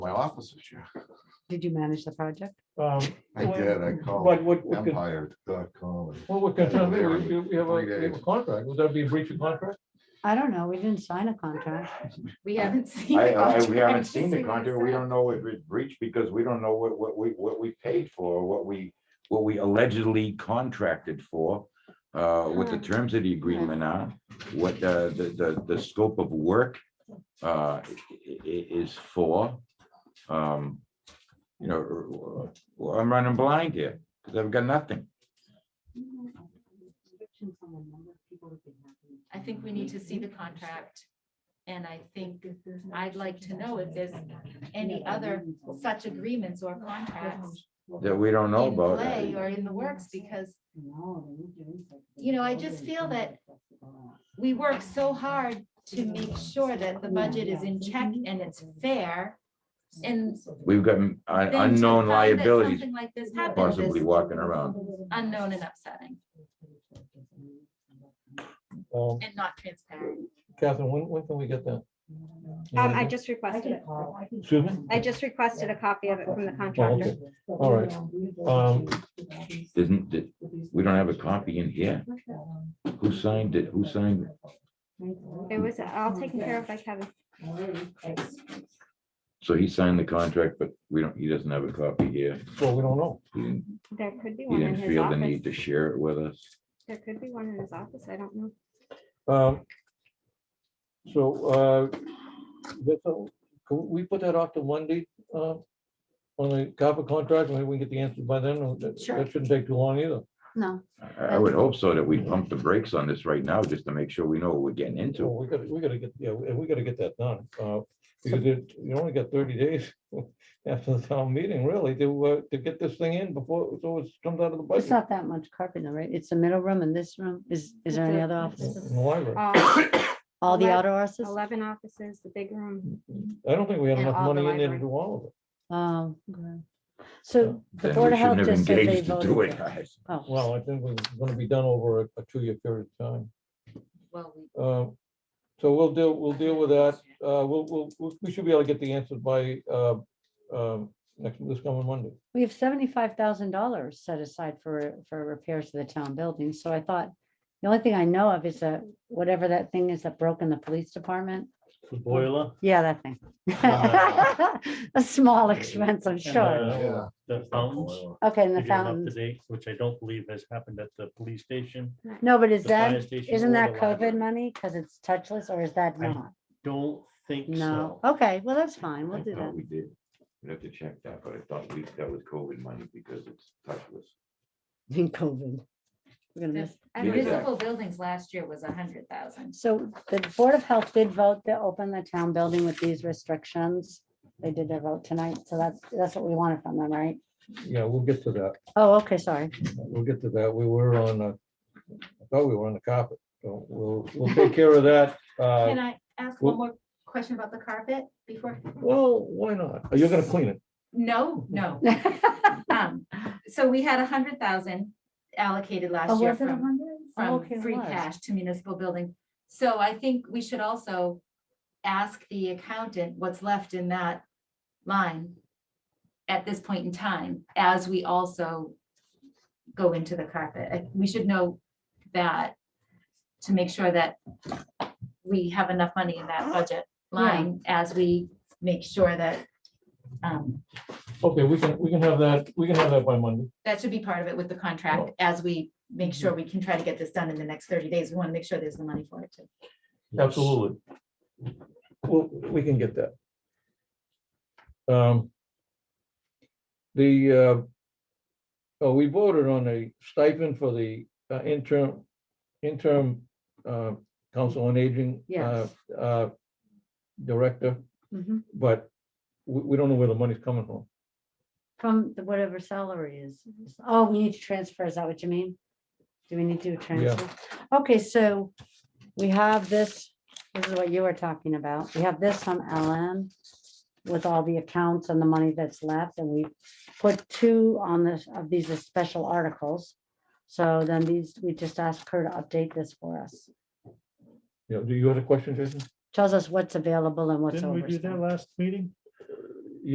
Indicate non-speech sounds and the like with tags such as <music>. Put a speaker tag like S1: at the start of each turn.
S1: office this year.
S2: Did you manage the project?
S3: Um,
S1: I
S3: Well,
S1: did, I called
S3: But what, what could-
S1: empire.com. and-
S3: what we're concerned,
S1: There.
S3: we we have a,
S1: Three
S3: we have a
S1: days.
S3: contract, would that be a breach of contract?
S2: I don't know. We didn't sign a contract.
S4: We haven't seen.
S5: I,
S4: the
S5: I, we
S4: contract
S5: haven't
S4: to
S5: seen
S4: <laughs>
S5: the
S4: see what it
S5: contract. We
S4: says.
S5: don't know what was breached because we don't know what, what we, what we paid for, what we, what we allegedly contracted for. Uh, what the
S4: Huh.
S5: terms of the agreement are, what the, the, the, the scope of work, uh, i- i- is for. Um, you know, uh, I'm running blind here because I've got nothing.
S4: I think we need to see the contract. And I think I'd like to know if there's any other such agreements or contracts
S5: That we don't know
S4: in
S5: about.
S4: play or in the works because You know, I just feel that we work so hard to make sure that the budget is in check and it's fair. And
S5: We've got uh,
S4: then to
S5: unknown
S4: find that
S5: liabilities
S4: Something like this happens
S5: possibly
S4: is
S5: walking around.
S4: unknown and upsetting
S3: Um,
S4: and not transparent.
S3: Catherine, when, when can we get that?
S6: Um, I just requested it.
S3: Excuse me?
S6: I just requested a copy of it from the
S3: Oh,
S6: contractor.
S3: okay. All Um, right. Um,
S5: Isn't, did- we don't have a copy in here. Who signed it? Who signed? it?
S6: It was all taken care of by Kevin.
S5: So he signed the contract, but we don't, he doesn't have a copy here.
S3: Well, we don't know.
S5: He didn't-
S6: There could be
S5: he
S6: one in
S5: didn't
S6: his
S5: feel the need to
S6: office.
S5: share it with us.
S6: There could be one in his office. I don't know.
S5: <coughs>
S3: Um, So, uh, that's all. can we put that off to Monday? uh, On the copper contract, maybe we can get the answer by then, or that
S4: Sure.
S3: that shouldn't take too long either.
S2: No,
S5: I I would hope so that we pump the brakes on this right now, just to make sure we know what we're getting
S3: So
S5: into.
S3: we gotta, we gotta get, yeah, we we gotta get that done. uh, Because it- you only got thirty days <laughs> after the town meeting, really, to, uh, to get this thing in before, so it comes out of the
S2: it's
S3: budget.
S2: not that much carpenter, right? It's the middle room and this room. Is, is there any
S6: It's a-
S2: other
S6: it's a-
S2: offices?
S3: In the library.
S6: All
S2: All the
S6: Eleven-
S2: outer offices?
S6: Uh, Eleven offices, the big room.
S3: I don't think we have
S6: And
S3: enough
S6: all the
S3: money in there to
S6: library.
S3: do all of it.
S2: Oh, okay. So the
S5: Then
S2: Board
S5: we
S2: of Health
S5: shouldn't have
S2: just said they
S5: engaged to
S2: voted.
S5: do it,
S2: for it.
S5: guys.
S2: Oh.
S3: Well, I think we're gonna be done over a a two-year period of time.
S4: Well, we
S3: Uh, So we'll deal, we'll deal with that. Uh, We'll, we'll, we'll- we should be able to get the answers by uh, um, next, this coming Monday.
S2: We have seventy-five thousand dollars set aside for, for repairs to the town building, so I thought, the only thing I know of is that, whatever that thing is that broke in the police department.
S7: Boiler.
S2: Yeah, that
S3: <laughs>
S2: thing. <laughs> A small expense, I'm sure.
S7: uh, The fountains.
S2: Okay, and
S7: if
S2: the
S7: you're up to
S2: fountains.
S7: date, Which I don't believe has happened at the police station.
S2: No, but is
S7: the fire
S2: that,
S7: station,
S2: isn't
S7: or
S2: that
S7: the
S2: COVID
S7: library.
S2: money? Because it's touchless, or is that
S7: I-
S2: not?
S7: Don't think
S2: No, Oh,
S7: so.
S2: okay, well, that's fine,
S5: I
S2: we'll do
S5: thought
S2: that.
S5: we did. We'd have to check that, but I thought we, that was COVID money because it's touchless.
S2: In COVID. We're gonna
S4: The
S2: miss.
S4: and
S5: Leave it there.
S4: municipal buildings last year was a hundred thousand.
S2: So the Board of Health did vote to open the town building with these restrictions. They did their vote tonight, so that's, that's what we wanted from them, right?
S3: Yeah, we'll get to that.
S2: Oh, okay, sorry.
S3: We'll get to that. We were on, uh, I thought we were on the carpet. So we'll, we'll take care of that. Uh,
S4: Can I ask
S3: well-
S4: one more question about the carpet before?
S3: Well, why not? Uh, You're gonna clean it.
S4: No, no.
S2: <laughs>
S4: Um, so we had a hundred thousand allocated
S2: Oh,
S4: last year
S2: was it a
S4: from,
S2: hundred? Oh,
S4: from
S2: okay, it
S4: free
S2: was.
S4: cash to municipal building. So I think we should also ask the accountant what's left in that line at this point in time, as we also go into the carpet. I- We should know that to make sure that we have enough money in that
S2: <gasps>
S4: budget line as we make sure that um,
S3: Okay, we can, we can have that, we can have that by Monday.
S4: that should be part of it with the contract as we make sure we can try to get this done in the next thirty days. We want to make sure there's the money for it too.
S3: Absolutely. Well, we can get that. Um. The, uh, oh, we voted on a stipend for the uh, interim, interim, uh, council on aging. uh,
S2: Yes.
S3: uh, Director,
S2: Mhm.
S3: but we, we don't know where the money's coming from.
S2: From the whatever salary is. Oh, we need to transfer, is that what you mean? Do we need to transfer? Okay, so we have this, this is what you were talking about. We have this from LM with all the accounts and the money that's left, and we put two on this, of these as special articles. So then these, we just asked her to update this for us.
S3: You know, do you have a question, Jason?
S2: Tells us what's available and what's
S7: Didn't we do that
S2: overspent.
S7: last meeting?